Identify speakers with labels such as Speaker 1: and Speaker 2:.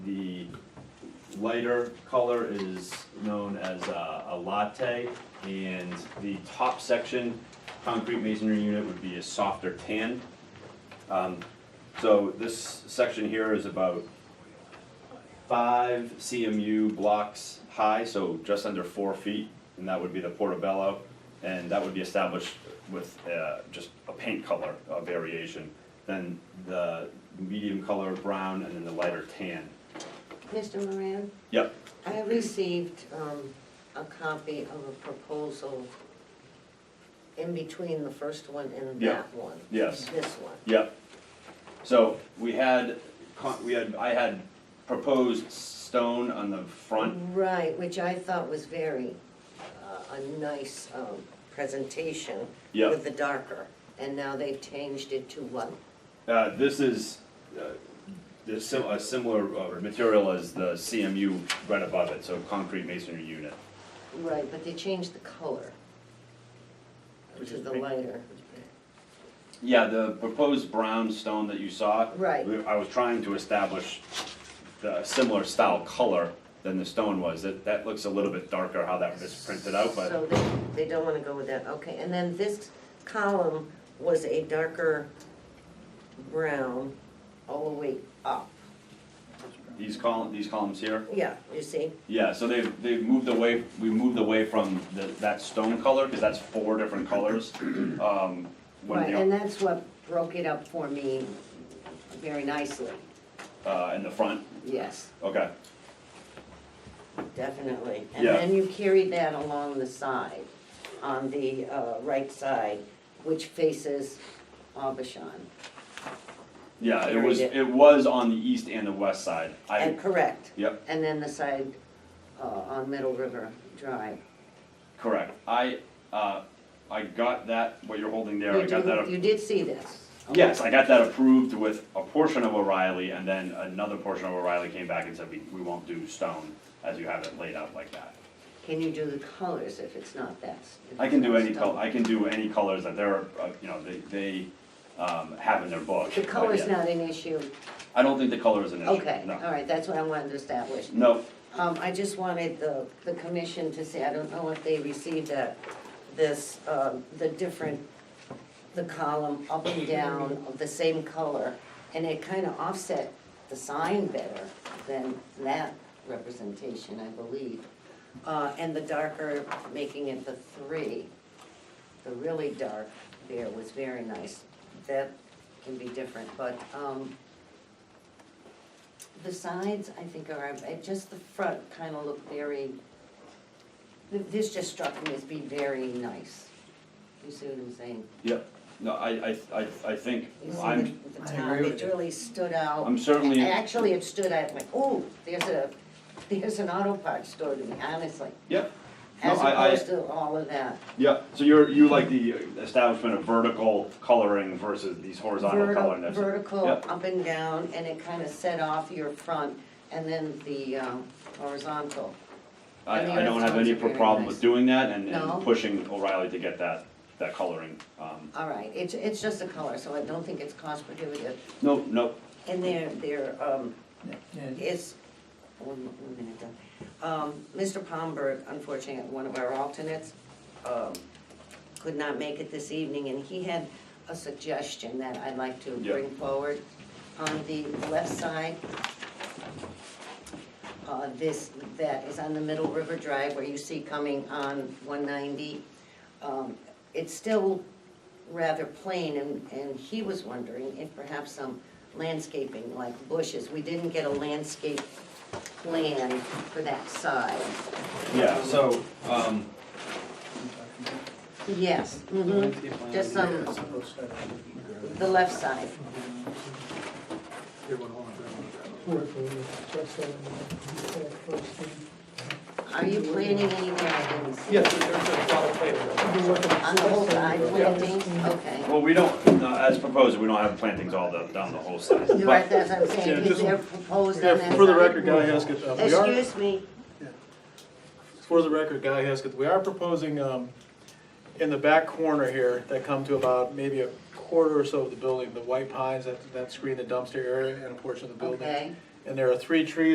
Speaker 1: lighter color is known as uh, a latte, and the top section, concrete masonry unit, would be a softer tan. Um, So this section here is about five CMU blocks high, so just under four feet, and that would be the portobello. And that would be established with uh, just a paint color uh, variation. Then the medium color brown and then the lighter tan.
Speaker 2: Mr. Moran,
Speaker 1: Yep,
Speaker 2: I received um, a copy of a proposal in between the first one and
Speaker 1: Yeah.
Speaker 2: that one.
Speaker 1: Yes.
Speaker 2: This one.
Speaker 1: yep. So we had, con- we had, I had proposed stone on the front.
Speaker 2: Right, which I thought was very, uh, a nice um, presentation
Speaker 1: Yeah.
Speaker 2: with the darker. And now they've changed it to what?
Speaker 1: Uh, This is uh, this sim- a similar uh, material as the CMU right above it, so concrete masonry unit.
Speaker 2: Right, but they changed the color
Speaker 1: Which
Speaker 2: to
Speaker 1: is
Speaker 2: the
Speaker 1: pink.
Speaker 2: lighter.
Speaker 1: Yeah, the proposed brown stone that you saw.
Speaker 2: Right.
Speaker 1: we- I was trying to establish the similar style color than the stone was. That, that looks a little bit darker how that is printed out, but
Speaker 2: So they, they don't wanna go with that, okay, and then this column was a darker brown all the way up.
Speaker 1: these column, these columns here.
Speaker 2: Yeah, you see,
Speaker 1: Yeah, so they've, they've moved away, we moved away from the, that stone color, because that's four different colors. Um, when
Speaker 2: right,
Speaker 1: they-
Speaker 2: and that's what broke it up for me very nicely,
Speaker 1: Uh, in the front,
Speaker 2: yes,
Speaker 1: okay.
Speaker 2: definitely. And
Speaker 1: Yeah.
Speaker 2: then you carried that along the side, on the, uh, right side, which faces Abishan.
Speaker 1: Yeah, it
Speaker 2: Very
Speaker 1: was,
Speaker 2: di-
Speaker 1: it was on the east and the west side. I,
Speaker 2: And correct,
Speaker 1: yep,
Speaker 2: and then the side, uh, on Middle River Drive.
Speaker 1: correct. I, uh, I got that, what you're holding there, I
Speaker 2: You
Speaker 1: got
Speaker 2: do-
Speaker 1: that,
Speaker 2: You
Speaker 1: a-
Speaker 2: did see this? Okay.
Speaker 1: yes, I got that approved with a portion of O'Reilly, and then another portion of O'Reilly came back and said, we, we won't do stone as you have it laid out like that.
Speaker 2: Can you do the colors if it's not that? if
Speaker 1: I can
Speaker 2: it's
Speaker 1: do
Speaker 2: not
Speaker 1: any
Speaker 2: stone?
Speaker 1: color, I can do any colors that they're, uh, you know, they, they, um, have in their book.
Speaker 2: The
Speaker 1: but
Speaker 2: color's
Speaker 1: yeah.
Speaker 2: not an issue?
Speaker 1: I don't think the color is an issue,
Speaker 2: Okay,
Speaker 1: no.
Speaker 2: all right, that's what I wanted to establish.
Speaker 1: No,
Speaker 2: Um, I just wanted the, the commission to say, I don't know if they received that, this, um, the different, the column up and down of the same color, and it kind of offset the sign better than that representation, I believe. Uh, and the darker, making it the three, the really dark there was very nice. That can be different, but, um, the sides, I think, are, uh, just the front kind of look very, th- this just struck me as being very nice. You see what I'm saying?
Speaker 1: yep, no, I, I, I, I think,
Speaker 2: You see
Speaker 1: I'm,
Speaker 2: the- the
Speaker 3: I
Speaker 2: top,
Speaker 3: agree
Speaker 2: it
Speaker 3: with you.
Speaker 2: really stood out.
Speaker 1: I'm certainly-
Speaker 2: A- Actually, it stood out like, oh, there's a, there's an auto parts store to me, honestly,
Speaker 1: yep. No,
Speaker 2: as
Speaker 1: I- I-
Speaker 2: opposed to all of that.
Speaker 1: Yeah, so you're, you like the establishment of vertical coloring versus these horizontal
Speaker 2: Vertical,
Speaker 1: coloring. that's-
Speaker 2: vertical,
Speaker 1: Yep,
Speaker 2: up and down, and it kind of set off your front, and then the um, horizontal.
Speaker 1: I,
Speaker 2: and the
Speaker 1: I don't have
Speaker 2: horizontal's
Speaker 1: any
Speaker 2: are very
Speaker 1: problem with
Speaker 2: nice.
Speaker 1: doing that and,
Speaker 2: No.
Speaker 1: and pushing O'Reilly to get that, that coloring. Um,
Speaker 2: All right, it's, it's just a color, so I don't think it's cost prohibitive.
Speaker 1: No, no,
Speaker 2: And there, there, um,
Speaker 3: Yeah,
Speaker 2: is, one mo- one minute, though. um, Mr. Palmberg, unfortunately, one of our alternates, um, could not make it this evening, and he had a suggestion that I'd like to
Speaker 1: Yeah.
Speaker 2: bring forward. On the left side, uh, this, that is on the Middle River Drive where you see coming on one ninety. Um, it's still rather plain, and, and he was wondering if perhaps some landscaping, like bushes, we didn't get a landscape plan for that side.
Speaker 1: yeah, so, um,
Speaker 2: Yes, mhm, just some, the left side, are you planting anything? I didn't see.
Speaker 4: Yes, there's a lot of play.
Speaker 2: On the whole side, planting, okay.
Speaker 1: well, we don't, no, as proposed, we don't have plantings all the, down the whole side.
Speaker 2: You're
Speaker 1: But-
Speaker 2: right, that's what I'm saying,
Speaker 4: Yeah,
Speaker 2: is
Speaker 4: just-
Speaker 2: there proposed on that
Speaker 4: Yeah, for the
Speaker 2: side?
Speaker 4: record, Guy Haskett, uh, we are,
Speaker 2: Excuse me,
Speaker 4: for the record, Guy Haskett, we are proposing, um, in the back corner here, that come to about maybe a quarter or so of the building, the white pines that, that screen the dumpster area and a portion of the building.
Speaker 2: okay.
Speaker 4: And there are three trees